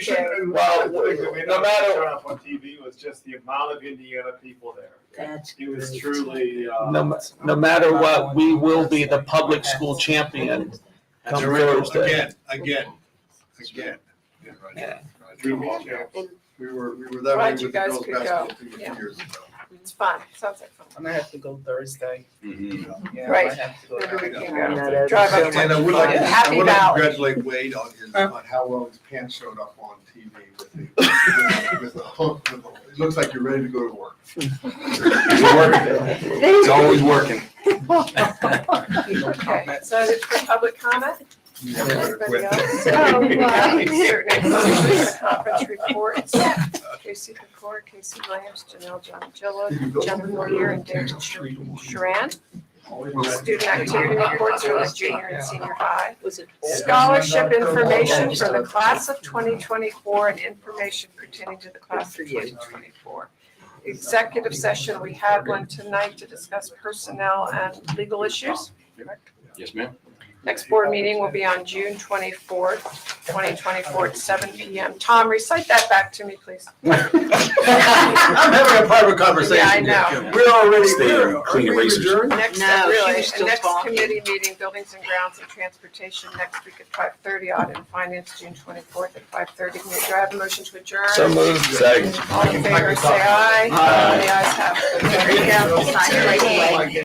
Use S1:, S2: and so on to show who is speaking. S1: Well,
S2: No matter. On TV was just the amount of Indiana people there.
S3: That's
S2: It was truly, uh.
S1: No, ma- no matter what, we will be the public school champion come Thursday.
S4: Again, again, again. Yeah, Roger.
S1: Yeah.
S2: we
S4: Roger.
S2: reached out.
S4: We were, we were that way
S5: Right,
S4: with
S5: you
S4: the
S5: guys
S4: girls'
S5: could go.
S4: basketball team a few
S5: Yeah.
S4: years ago.
S5: It's fun, sounds like fun.
S6: I'm gonna have to go Thursday. Yeah,
S5: Right.
S6: I have to go.
S5: Maybe we can
S6: Yeah,
S5: go.
S6: that-
S5: Mm-hmm. Drive up
S4: And I would like,
S5: Yeah.
S4: I
S5: Happy
S4: would like to
S5: Valley.
S4: congratulate Wade on his, on how well his pants showed up on TV with the, with the hook, with the- it looks like you're ready to go to work.
S5: It's
S7: always working.
S5: Okay, so is it for public comment?
S4: You have to go to
S5: Anybody
S4: quit.
S5: else?
S3: Oh,
S5: Uh,
S3: wow.
S5: here, next, Conference reports, Casey Pecor, Casey Williams, Janelle Joncello, Jennifer Moyer, and Derek Sharan. Student activity reports for the junior and senior high.
S6: Was it?
S5: Scholarship information for the class of twenty twenty-four and information pertaining to the class of twenty twenty-four. Executive session, we had one tonight to discuss personnel and legal issues.
S7: Yes, ma'am.
S5: Next board meeting will be on June twenty-fourth, twenty twenty-four at seven P M. Tom, recite that back to me, please.
S4: I'm having a private conversation.
S5: Yeah, I know.
S4: We're already,
S7: Stay
S4: we're,
S7: clean
S4: are we
S7: erasers.
S4: adjourned?
S5: Next,
S3: No,
S5: step,
S3: she was
S5: really, and
S3: still
S5: next
S3: talking.
S5: committee meeting, buildings and grounds and transportation, next week at five thirty, audit and finance, June twenty-fourth at five thirty. Do I have a motion to adjourn?
S1: So moved.
S5: All in favor, say aye.
S1: Aye.
S5: The ayes have it. There you go. Sign it right away.